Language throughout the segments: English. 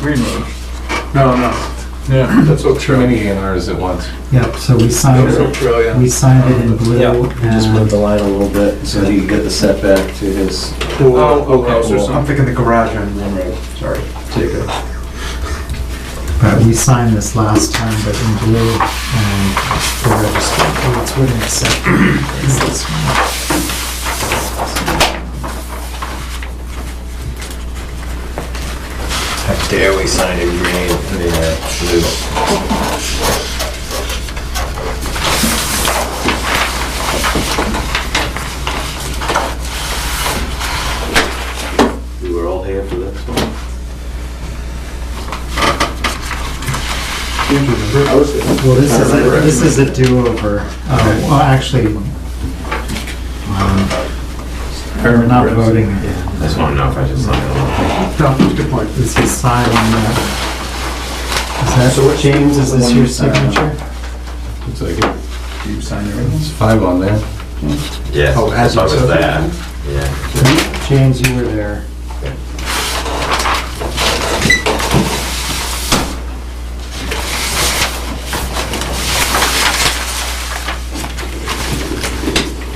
Green Road. No, no. Yeah. That's what too many A and Rs at once. Yep, so we signed Oak it, Trail, yeah. we signed it in blue. Yeah, we just and- moved the line a little bit so that you could get the setback to his, Pool, Oh, pool okay, house or cool. I'm something. thinking the garage on Green Road, sorry. Take it. But we signed this last time, but in blue, and the register votes wouldn't accept it. It's this one. How dare we sign it green, I mean, uh, blue. We were all here for this one. Well, this is, a- this is a do-over. Uh, Well, actually, um, we're um, not voting again. Just want to know if I just signed No, that's a good point. This is signing that. Is So that, what- James, is this your signature? It's like, Do you sign everything? it's five on there. Yeah. Oh, as I was it's- there, yeah. James, you were there.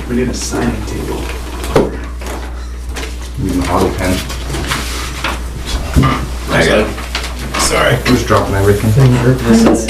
We need a signing table. We can auto pen. I got it. Sorry. Who's dropping everything? Fingerprints.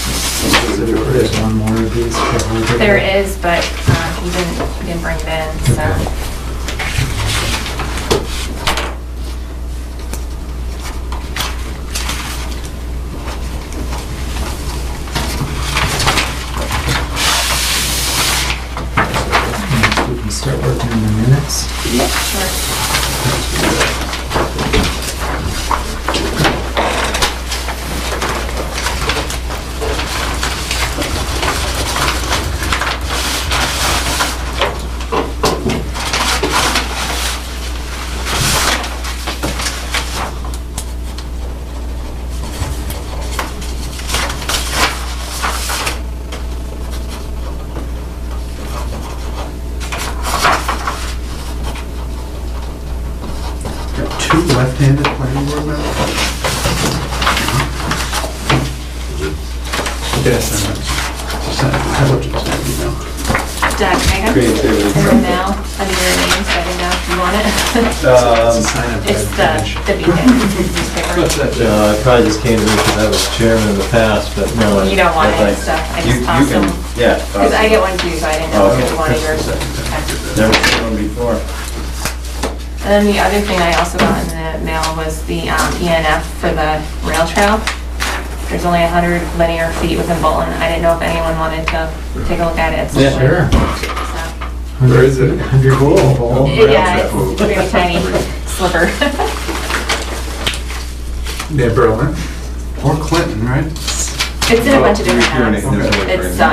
There's one more of these for Holger. There is, but um, he didn't, he didn't bring it in, so. We can start working on the minutes. Sure. Got two left-handed planning board members? Yes. How about you sign it now? Doug, Megan, from now, under your name, so I didn't know if you want it. Um, It's the, the beacon newspaper. No, I probably uh, just came to because I was chairman in the past, but no. I- You don't want it, I'd like- so I just You- you toss can- them. Yeah. Because toss I them. get one too, so I didn't know if Okay. you wanted yours. Okay. Never seen one before. And then the other thing I also got in the mail was the um, ENF for the rail trail. There's only 100 linear feet within Bolton. I didn't know if anyone wanted to take a look at it. Yeah, sure. So- Where is it? Hundred people. Yeah, it's a very tiny sliver. Near Berlin. Or Clinton, right? It's in a bunch of different You're towns. in it, there's It's, um,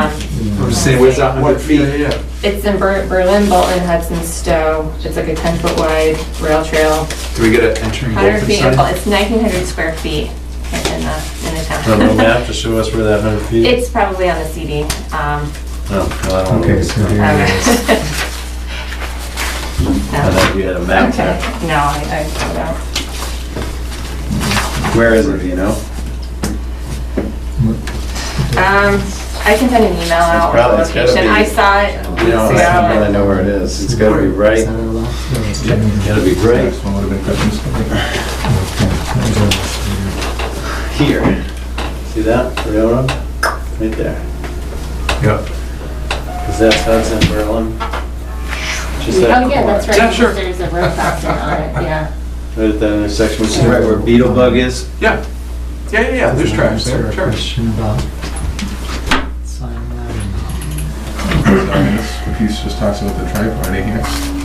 I'm just Where's that What hundred feet? feet? Yeah, yeah. it's in Ber- Berlin, Bolton, Hudson, Stowe. It's like a 10-foot wide rail trail, Do we get an entering 100 feet, in Bol- Wolfenstein? it's 1,900 square feet in the, in the Do you have a town. map to show us where that hundred feet? is? It's probably on the CD. um, Oh, no, I don't know. Okay, so here it okay. is. I No. thought you had a map Okay, there. no, I, I pulled out. Where is it, do you know? Um, I can send an email out with probably- the it's gotta location. be- I saw it weeks You know, I don't really ago. know where it is. It's gotta be Is right, that our last? gotta be right Next one would have been Christmas. here. See that railroad? Right there. Yep. Is that Hudson Berlin? Just that Oh, yeah, corner. that's right. Yeah, sure. There's a road crossing on it, yeah. Right at that intersection, which is right where Beetle Bug is. Yeah. Yeah, yeah, yeah, there's tracks there, a sure. Question about sign that. He's just talks about the tri-party here.